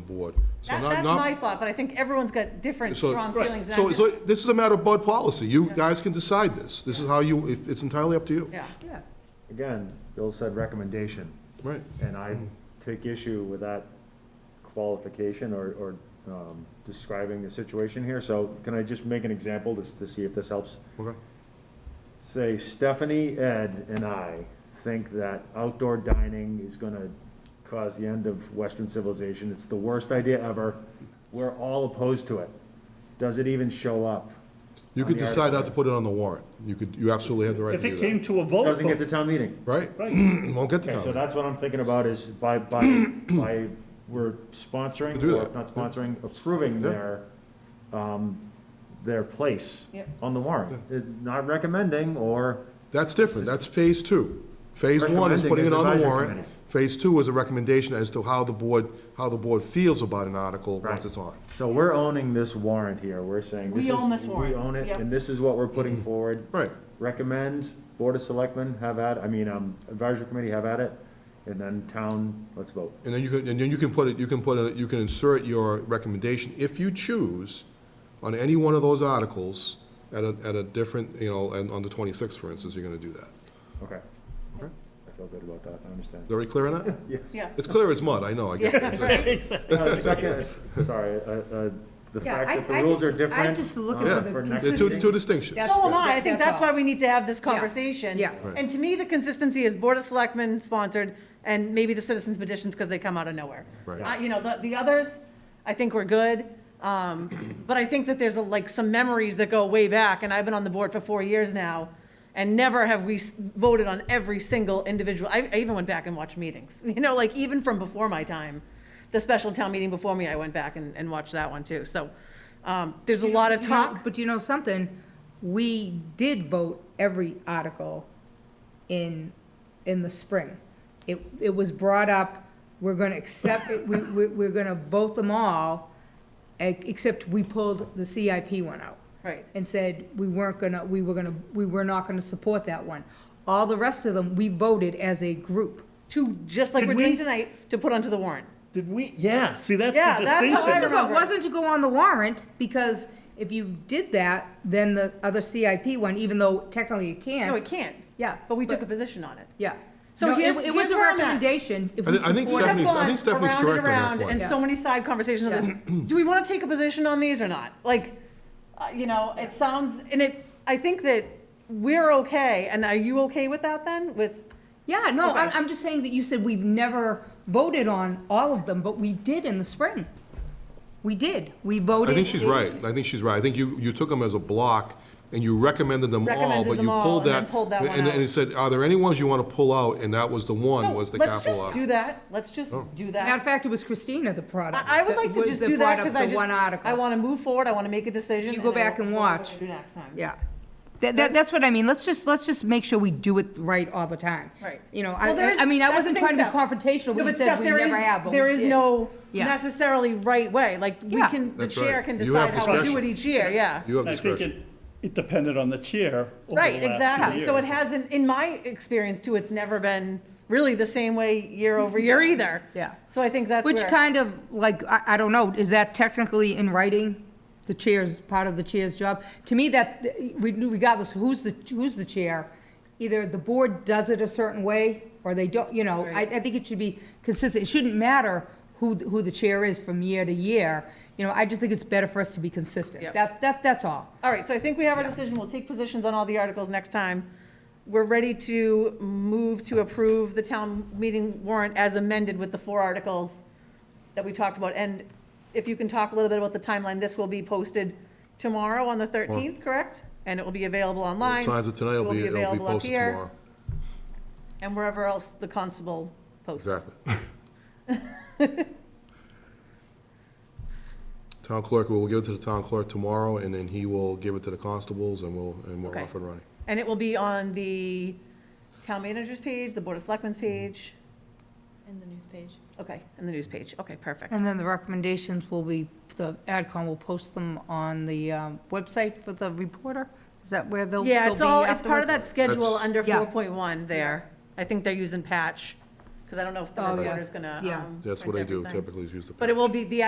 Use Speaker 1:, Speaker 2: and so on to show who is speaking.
Speaker 1: board. So
Speaker 2: That-
Speaker 1: not-
Speaker 2: That's
Speaker 1: not-
Speaker 2: my thought, but I think everyone's got different
Speaker 1: so-
Speaker 2: strong
Speaker 1: right.
Speaker 2: feelings. and
Speaker 1: So,
Speaker 2: I'm
Speaker 1: so
Speaker 2: just-
Speaker 1: this is a matter of board policy. You guys can decide this. This is how you, if- it's entirely up to you.
Speaker 2: Yeah,
Speaker 3: Yeah.
Speaker 4: Again, Bill said recommendation,
Speaker 1: Right.
Speaker 4: and I take issue with that qualification or, or um, describing the situation here. So can I just make an example to, s- to see if this helps?
Speaker 1: Okay.
Speaker 4: Say Stephanie, Ed, and I think that outdoor dining is gonna cause the end of Western civilization. It's the worst idea ever. We're all opposed to it. Does it even show up?
Speaker 1: You
Speaker 4: On
Speaker 1: could
Speaker 4: the
Speaker 1: decide not
Speaker 4: article.
Speaker 1: to put it on the warrant. You could, you absolutely have the right
Speaker 5: If
Speaker 1: to
Speaker 5: it
Speaker 1: do
Speaker 5: came
Speaker 1: that.
Speaker 5: to a vote,
Speaker 4: Doesn't get to
Speaker 5: bef-
Speaker 4: town meeting.
Speaker 1: Right?
Speaker 5: right,
Speaker 1: Won't get the
Speaker 4: Okay, so
Speaker 1: time.
Speaker 4: that's what I'm thinking about is by, by, by, we're sponsoring,
Speaker 1: Do
Speaker 4: or
Speaker 1: that.
Speaker 4: not sponsoring, approving
Speaker 1: Yeah.
Speaker 4: their, um, their place
Speaker 2: Yep.
Speaker 4: on the warrant. Uh, Not recommending or,
Speaker 1: That's different. That's phase two. Phase one is
Speaker 4: Recommending
Speaker 1: putting
Speaker 4: is
Speaker 1: it on the
Speaker 4: advisory
Speaker 1: warrant.
Speaker 4: committee.
Speaker 1: Phase two is a recommendation as to how the board, how the board feels about an article once
Speaker 4: Right.
Speaker 1: it's on.
Speaker 4: so we're owning this warrant here. We're saying.
Speaker 2: We
Speaker 4: is-
Speaker 2: own this warrant.
Speaker 4: We own it,
Speaker 2: Yep.
Speaker 4: and this is what we're putting forward.
Speaker 1: Right.
Speaker 4: Recommend, Board of Selectmen have at, I mean, um, advisory committee have at it, and then town, let's vote.
Speaker 1: And then you can, and then you can put it, you can put, a- you can insert your recommendation, if you choose, on any one of those articles at a, at a different, you know, and on the twenty-sixth, for instance, you're gonna do that.
Speaker 4: Okay.
Speaker 1: Okay.
Speaker 4: I feel good about that. I understand.
Speaker 1: Very clear on that?
Speaker 4: Yes.
Speaker 2: yeah.
Speaker 1: It's clear as mud, I know, I get it. It's like-
Speaker 4: Uh, the second, sorry, uh, uh, the
Speaker 3: Yeah,
Speaker 4: fact
Speaker 3: I-
Speaker 4: that the
Speaker 3: I
Speaker 4: rules
Speaker 3: just-
Speaker 4: are
Speaker 3: I'm
Speaker 4: different.
Speaker 3: just looking
Speaker 4: uh,
Speaker 1: for the
Speaker 4: next-
Speaker 1: There are two, two distinctions.
Speaker 3: That's-
Speaker 2: So am I. I
Speaker 3: That-
Speaker 2: think
Speaker 3: that's
Speaker 2: that's why
Speaker 3: all.
Speaker 2: we need to have this conversation.
Speaker 3: Yeah.
Speaker 1: Right.
Speaker 2: And to me, the consistency is Board of Selectmen sponsored and maybe the citizens petitions because they come out of nowhere.
Speaker 1: Right.
Speaker 2: Uh, You know, the, the others, I think we're good. Um, but I think that there's a, like some memories that go way back and I've been on the board for four years now. And never have we s- voted on every single individual. I, I even went back and watched meetings, you know, like even from before my time. The special town meeting before me, I went back and, and watched that one too. So, um, there's a lot of
Speaker 3: You know,
Speaker 2: talk.
Speaker 3: But you know something? We did vote every article in, in the spring. It, it was brought up, we're gonna accept, it, we, we, we're gonna vote them all, e- except we pulled the CIP one out.
Speaker 2: Right.
Speaker 3: And said we weren't gonna, we were gonna, we were not gonna support that one. All the rest of them, we voted as a group.
Speaker 2: to, just like
Speaker 5: Did
Speaker 2: we're doing
Speaker 5: we-
Speaker 2: tonight, to put onto the warrant.
Speaker 5: Did we? Yeah. See, that's
Speaker 2: Yeah,
Speaker 5: the
Speaker 2: that's how I
Speaker 5: distinction.
Speaker 2: remember.
Speaker 3: But it wasn't to go on the warrant, because if you did that, then the other CIP one, even though technically it can't.
Speaker 2: No, it can't.
Speaker 3: Yeah,
Speaker 2: But we took a
Speaker 3: but-
Speaker 2: position on it.
Speaker 3: Yeah.
Speaker 2: So
Speaker 3: No, it-
Speaker 2: here's-
Speaker 3: It
Speaker 2: here's
Speaker 3: was a
Speaker 2: where I'm at.
Speaker 3: recommendation. if
Speaker 1: I
Speaker 3: we
Speaker 1: thi- I think
Speaker 3: support-
Speaker 1: Stephanie's- I think
Speaker 2: Kept going
Speaker 1: Stephanie's
Speaker 2: around and
Speaker 1: correct on that
Speaker 2: around,
Speaker 1: point.
Speaker 2: And so many side conversations of this, do we want to take a position on these or not? Like, uh, you know, it sounds, and it, I think that we're okay, and are you okay with that then, with?
Speaker 3: Yeah, no, I'm,
Speaker 2: Okay.
Speaker 3: I'm just saying that you said we've never voted on all of them, but we did in the spring. We did. We voted.
Speaker 1: I think she's right, I think she's right. I think you, you took them as a block, and you recommended them all,
Speaker 2: Recommended
Speaker 1: but
Speaker 2: them
Speaker 1: you
Speaker 2: all
Speaker 1: pulled
Speaker 2: and
Speaker 1: that.
Speaker 2: then pulled that one
Speaker 1: and-
Speaker 2: out.
Speaker 1: And it said, are there any ones you wanna pull out, and that was the
Speaker 2: So
Speaker 1: one, was the
Speaker 2: let's
Speaker 1: capital
Speaker 2: just
Speaker 1: article. Oh.
Speaker 2: Do that, let's just do
Speaker 3: Matter of
Speaker 2: that.
Speaker 3: fact, it was Christina that brought up.
Speaker 2: I I would
Speaker 3: that-
Speaker 2: like to
Speaker 3: was-
Speaker 2: just do that,
Speaker 3: brought up
Speaker 2: because I
Speaker 3: the
Speaker 2: just,
Speaker 3: one article.
Speaker 2: I want to move forward, I want to make a decision.
Speaker 3: You go
Speaker 2: and I
Speaker 3: back
Speaker 2: will-
Speaker 3: and
Speaker 2: we'll
Speaker 3: watch.
Speaker 2: do next time.
Speaker 3: Yeah. That, that, that's what I mean. Let's just, let's just make sure we do it right all the time.
Speaker 2: Right.
Speaker 3: You know,
Speaker 2: Well, there
Speaker 3: I,
Speaker 2: is-
Speaker 3: I mean, I
Speaker 2: that's the
Speaker 3: wasn't
Speaker 2: thing,
Speaker 3: trying to be
Speaker 2: Steph.
Speaker 3: confrontational.
Speaker 2: No,
Speaker 3: We
Speaker 2: but
Speaker 3: said
Speaker 2: Steph,
Speaker 3: we
Speaker 2: there
Speaker 3: never
Speaker 2: is-
Speaker 3: have, but we
Speaker 2: There is
Speaker 3: did.
Speaker 2: no
Speaker 3: Yeah.
Speaker 2: necessarily right way, like, we
Speaker 3: Yeah.
Speaker 2: can, the
Speaker 1: That's right.
Speaker 2: chair can
Speaker 1: You have
Speaker 2: decide how to do
Speaker 1: discretion.
Speaker 2: it each year, yeah.
Speaker 1: You have
Speaker 5: I think
Speaker 1: discretion.
Speaker 5: it, it depended on the chair. over
Speaker 2: Right,
Speaker 5: the last
Speaker 2: exactly,
Speaker 5: few
Speaker 2: so it
Speaker 5: years.
Speaker 2: hasn't, in my experience too, it's never been really the same way year over year either.
Speaker 3: Yeah.
Speaker 2: So I think that's
Speaker 3: Which
Speaker 2: where,
Speaker 3: kind of, like, I, I don't know, is that technically in writing? The chair's, part of the chair's job? To me, that, we- regardless of who's the, who's the chair, either the board does it a certain way, or they don't, you know, I, I think it should be consistent. It shouldn't matter who, th- who the chair is from year to year. You know, I just think it's better for us to be consistent.
Speaker 2: Yep.
Speaker 3: That, that, that's all.
Speaker 2: all right, so I think we have our decision, we'll take positions on all the articles next time. We're ready to move to approve the town meeting warrant as amended with the four articles that we talked about, and if you can talk a little bit about the timeline, this will be posted tomorrow on the thirteenth, correct? And it will be available online.
Speaker 1: Signs of tonight will be, it'll be
Speaker 2: available up
Speaker 1: posted
Speaker 2: here,
Speaker 1: tomorrow.
Speaker 2: And wherever else the constable posts.
Speaker 1: Exactly. Town clerk, we'll give it to the town clerk tomorrow, and then he will give it to the constables, and we'll, and we're
Speaker 2: Okay.
Speaker 1: off and running.
Speaker 2: And it will be on the town manager's page, the board of selectmen's page,
Speaker 6: In the news page.
Speaker 2: okay, and the news page, okay, perfect.
Speaker 3: And then the recommendations will be, the AdCom will post them on the um, website for the reporter? Is that where they'll, they'll be
Speaker 2: Yeah, it's all, it's part of
Speaker 3: afterwards?
Speaker 2: that schedule
Speaker 1: That's-
Speaker 2: under
Speaker 1: Yeah.
Speaker 2: four point one there. I think they're using patch, because because I don't know if the
Speaker 3: Oh, yeah.
Speaker 2: recorder's gonna.
Speaker 3: Yeah.
Speaker 2: um,
Speaker 1: That's what I
Speaker 2: print
Speaker 1: do
Speaker 2: everything.
Speaker 1: typically, is use the.
Speaker 2: But it
Speaker 1: pen.
Speaker 2: will be, the